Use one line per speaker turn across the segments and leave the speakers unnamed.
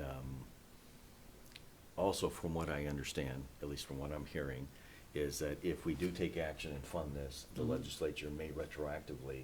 um, also, from what I understand, at least from what I'm hearing, is that if we do take action and fund this,
Mm-hmm.
the legislature may retroactively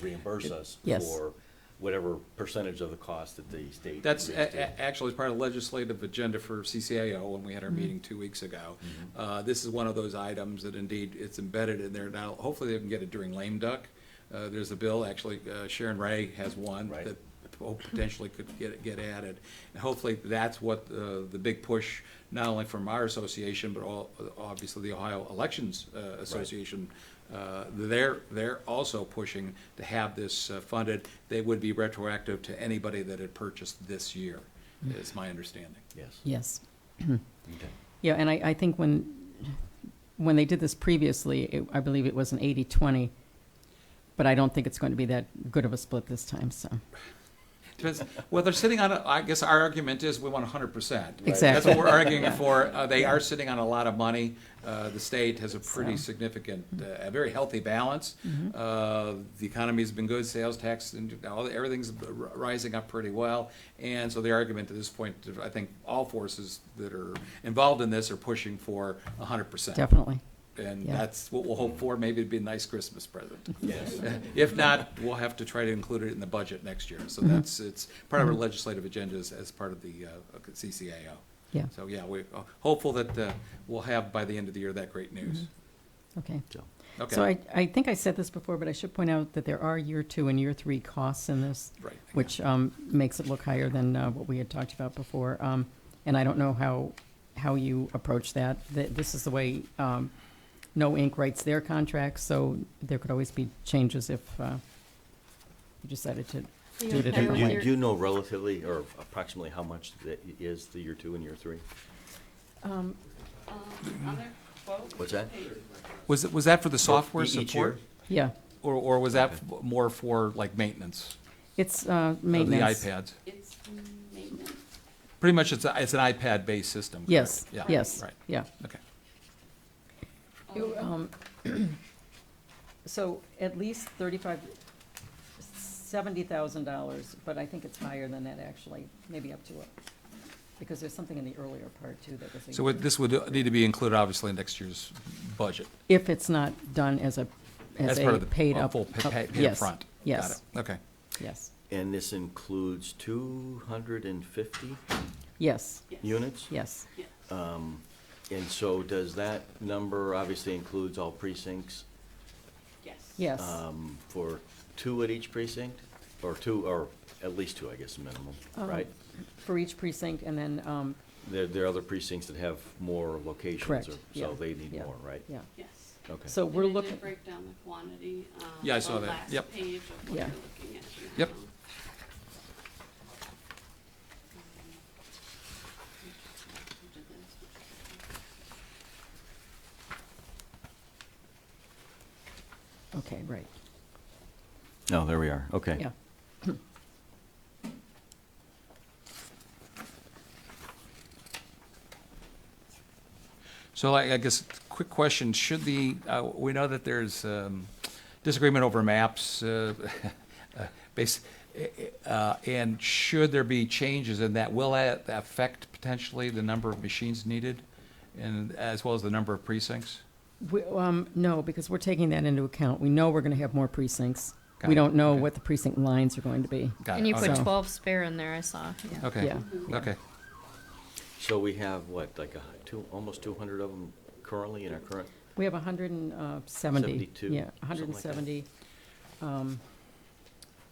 reimburse us
Yes.
for whatever percentage of the cost that the state.
That's
agrees
a-
to.
a- actually part of the legislative agenda for CCAO when we had our meeting two weeks ago.
Mm-hmm.
Uh, This is one of those items that indeed it's embedded in there now. Hopefully they can get it during lame duck. Uh, There's a bill, actually uh, Sharon Ray has one
Right.
that po- potentially could get, get added. And hopefully that's what uh, the big push, not only from our association, but all, obviously the Ohio Elections uh, Association. uh, They're, they're also pushing to have this uh, funded. They would be retroactive to anybody that had purchased this year, is my understanding.
Yes.
Yes.
Okay.
Yeah, and I, I think when, when they did this previously, it, I believe it was an 80-20, but I don't think it's going to be that good of a split this time, so.
Depends, well, they're sitting on, a- I guess our argument is we want hundred percent. That's
Exactly.
what we're arguing for. Uh, they are sitting on a lot of money. Uh, the state has a pretty
So. Mm-hmm.
significant, uh, a very healthy balance. Uh, the economy's been good, sales tax and all, everything's r- rising up pretty well. And so the argument at this point, I think all forces that are involved in this are pushing for hundred percent.
Definitely.
And
yeah.
that's what we'll hope for. Maybe it'd be a nice Christmas present.
Yes.
If not, we'll have to try to include it in the budget next year.
Mm-hmm.
So that's, it's part of our legislative agenda as, as part of the uh, CCAO.
Yeah.
So, yeah, we're hopeful that uh, we'll have by the end of the year that great news.
Okay.
So,
Mm-hmm. So
Okay,
I, I think I said this before, but I should point out that there are year two and year three costs in this,
right.
which um, makes it look higher than uh, what we had talked about before. Um, And I don't know how, how you approach that. Th- This is the way um, No Inc. writes their contracts, so there could always be changes if uh, you decided to
Are
do
you
it a
okay
different
Do
with
way.
you, do you know relatively or approximately how much that is the year two and year three?
Um,
Um,
What's that?
Was, it- was that for the software
E-, each year?
support?
Yeah,
Or, or was that f- more for like maintenance?
it's uh,
of
maintenance.
Oh, The iPads?
It's maintenance.
Pretty much it's, a- it's an iPad-based system, correct?
Yes,
Yeah,
yes,
Right,
yeah.
okay.
You, um, So at least thirty-five, seventy thousand dollars, but I think it's higher than that actually, maybe up to it. Because there's something in the earlier part too that was. a-
So what- this would uh, need to be included, obviously, in next year's budget.
If it's not done as a, as
That's part
a
of the
paid
uh,
up.
Full pa-
up-
pa- paid
yes,
upfront. Got
Yes,
it. Okay.
yes,
And this includes two hundred and fifty
yes,
units?
yes,
Uh. And so does that number obviously includes all precincts?
Yes.
yes.
um, For two at each precinct? Or two, or at least two, I guess, minimum,
Um,
right?
For each precinct and then, um,
There, there are other precincts that have more locations.
correct,
or-
yeah.
So they need
yeah,
more, right?
Yeah,
Yes.
Okay.
so we're
And it did
looking,
break down the quantity um, on
Yeah, I saw that.
The
Yep.
last page of what
Yeah.
you're looking at. now.
Yep.
okay, right,
No, Oh, there we are, okay.
yeah.
So I, I guess, quick question, should the, uh, we know that there's, um, disagreement over maps, uh, uh, base, uh, and should there be changes in that, will that affect potentially the number of machines needed? And as well as the number of precincts?
We, um, no, because we're taking that into account. We know we're gonna have more precincts.
Got it,
We don't know
okay.
what the precinct lines are going to be.
Got
And
it,
you put
okay.
So-
twelve spare in there, I saw, yeah.
Okay,
Yeah.
okay,
So we have, what, like a, hu- two, almost two hundred of them currently in our current?
We have hundred and uh, seventy.
72,
Yeah, hundred
something
and
like that.
seventy. Um,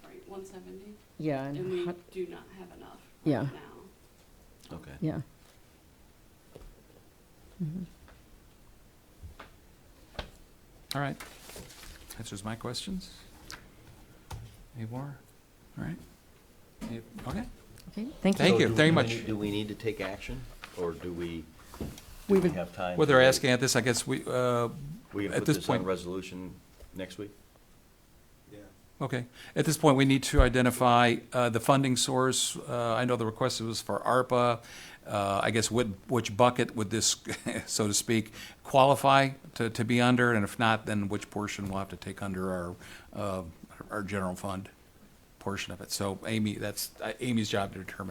Right, one seventy,
yeah, and
and we
hun-
do not have enough
Yeah.
right now.
Okay.
yeah.
all right. Answers my questions? Any more? All right. Any- Okay.
Okay, thank
Thank
you.
So
you
do
very
we
much.
need- Do we need to take action, or do we, do
We
we
would,
have time?
Well,
to
they're
wait?
asking at this, I guess we, uh,
We can
at
put
this
this on
point-
resolution next week?
Okay. At this point, we need to identify uh, the funding source. Uh, I know the request was for ARPA. Uh, I guess what- which bucket would this, so to speak, qualify to to be under? And if not, then which portion we'll have to take under our, uh, our general fund portion of it. So Amy, that's uh, Amy's job to determine